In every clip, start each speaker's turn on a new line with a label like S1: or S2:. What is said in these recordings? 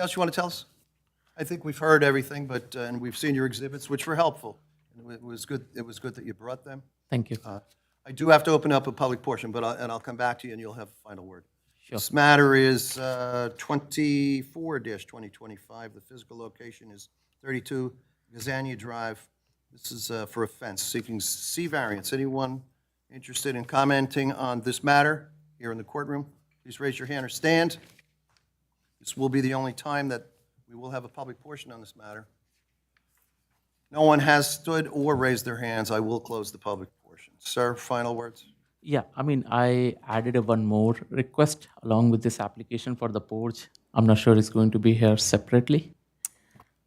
S1: else you want to tell us? I think we've heard everything, but, uh, and we've seen your exhibits, which were helpful. And It was good, it was good that you brought them.
S2: Thank you.
S1: I do have to open up a public portion, but, I'll- and I'll come back to you and you'll have a final word. This matter is uh, 24-2025. The physical location is 32 Gazania Drive. This is uh, for a fence, seeking C variance. Anyone interested in commenting on this matter here in the courtroom? Please raise your hand or stand. This will be the only time that we will have a public portion on this matter. No one has stood or raised their hands. I will close the public portion. Sir, final words?
S2: Yeah, I mean, I added a one more request along with this application for the porch. I'm not sure it's going to be here separately.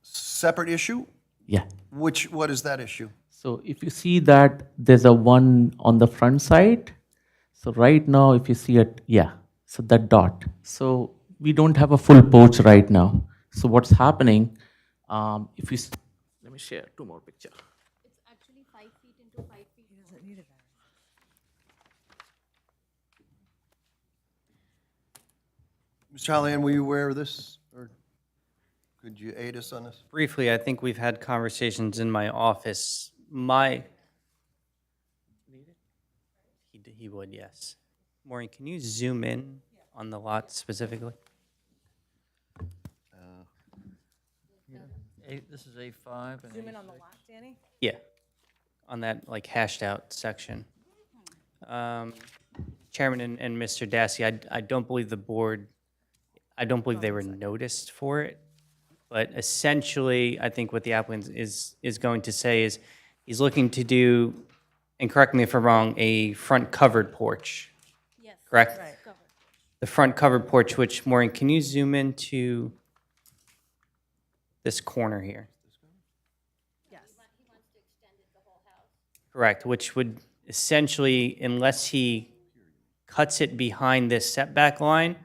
S1: Separate issue?
S2: Yeah.
S1: Which, what is that issue?
S2: So if you see that there's a one on the front side. So right now, if you see it, yeah, so that dot. So we don't have a full porch right now. So what's happening, um, if you, s- let me share two more picture.
S1: Mr. Hollihan, were you aware of this, or could you aid us on this?
S3: Briefly, I think we've had conversations in my office. My. He, d- he would, yes. Maureen, can you zoom in on the lot specifically?
S4: Eight, this is A five and A-
S5: on the lot, Danny?
S3: Yeah, on that like hashed out section. Um, Chairman and, and Mr. Dasty, I, I don't believe the board, I don't believe they were noticed for it. But essentially, I think what the applicant is, is going to say is, he's looking to do, and correct me if I'm wrong, a front covered porch,
S5: Yes.
S3: correct?
S5: Covered.
S3: The front covered porch, which, Maureen, can you zoom into this corner here?
S5: Yes.
S3: Correct, which would essentially, unless he cuts it behind this setback line,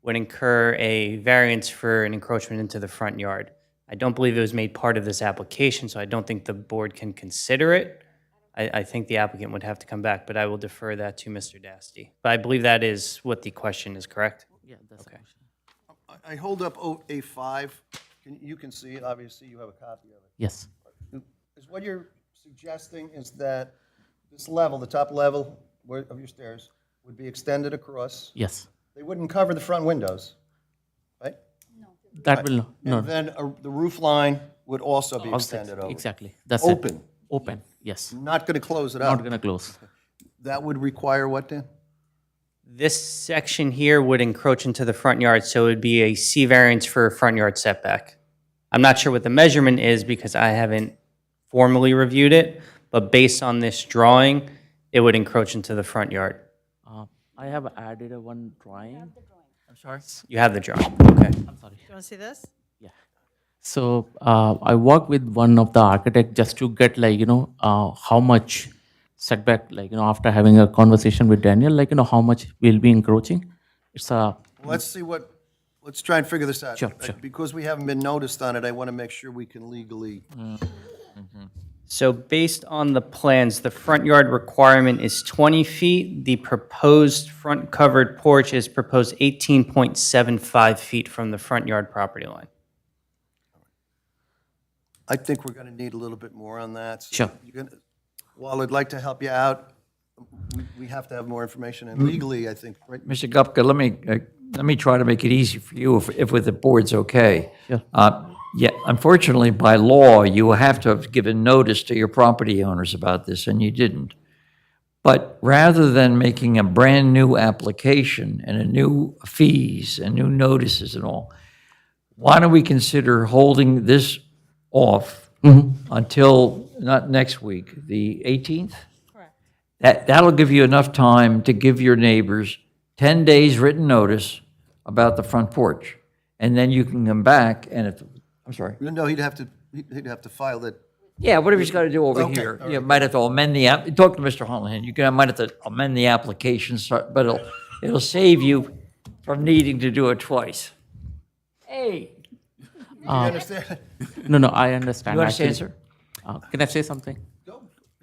S3: would incur a variance for an encroachment into the front yard. I don't believe it was made part of this application, so I don't think the board can consider it. I, I think the applicant would have to come back, but I will defer that to Mr. Dasty. But I believe that is what the question is, correct?
S2: Yeah, that's okay.
S1: I- I hold up O- A5. Can- You can see it, obviously, you have a copy of it.
S2: Yes.
S1: Is what you're suggesting is that this level, the top level where- of your stairs, would be extended across?
S2: Yes.
S1: They wouldn't cover the front windows, right?
S2: That will no,
S1: And then a- the roof line would also be
S2: Also,
S1: extended over?
S2: Exactly. That's it.
S1: Open,
S2: Open. Yes.
S1: not going to close it
S2: Not
S1: up.
S2: gonna close.
S1: That would require what, Dan?
S3: This section here would encroach into the front yard, so it would be a C variance for a front yard setback. I'm not sure what the measurement is because I haven't formally reviewed it, but based on this drawing, it would encroach into the front yard.
S2: Uh, I have added a one drawing. I'm sorry.
S3: You have the drawing, okay?
S2: I'm sorry.
S5: You want to see this?
S2: So uh, I work with one of the architect just to get like you know uh, how much setback like you know after having a conversation with Daniel like you know how much we'll be encroaching. It's uh, a
S1: Let's see what, let's try and figure this out.
S2: Sure, sure.
S1: Because we haven't been noticed on it, I want to make sure we can legally,
S3: So based on the plans, the front yard requirement is 20 feet. The proposed front covered porch is proposed 18.75 feet from the front yard property line.
S1: I think we're going to need a little bit more on that. So
S2: Sure.
S1: you're gonna- While I'd like to help you out, we- we have to have more information, and legally, I think, right?
S4: Mr. Gupka, let me, uh, let me try to make it easy for you if, if with the board's okay. Uh, Yeah, unfortunately, by law, you have to have given notice to your property owners about this, and you didn't. But rather than making a brand-new application and a new fees and new notices and all, why don't we consider holding this off until, not next week, the 18th?
S5: Correct.
S4: That, that'll give you enough time to give your neighbors 10 days written notice about the front porch. And then you can come back and if, I'm sorry.
S1: No, he'd have to, he'd he'd have to file that.
S4: Yeah, whatever he's got to do over
S1: Okay,
S4: here.
S1: all
S4: You might have to amend the, app. talk to Mr. Holohan, you can, might have to amend the application, so- but it'll, it'll save you from needing to do it twice. Hey.
S1: You understand?
S2: Um, no no I understand.
S4: You understand,
S2: actually.
S4: sir?
S2: Uh, can I say something?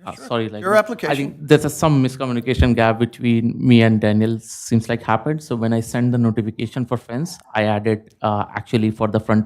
S2: Uh, Sorry, like.
S1: Your
S2: I
S1: application.
S2: think there's a some miscommunication gap between me and Daniel seems like happened. So when I sent the notification for fence, I added, uh, actually for the front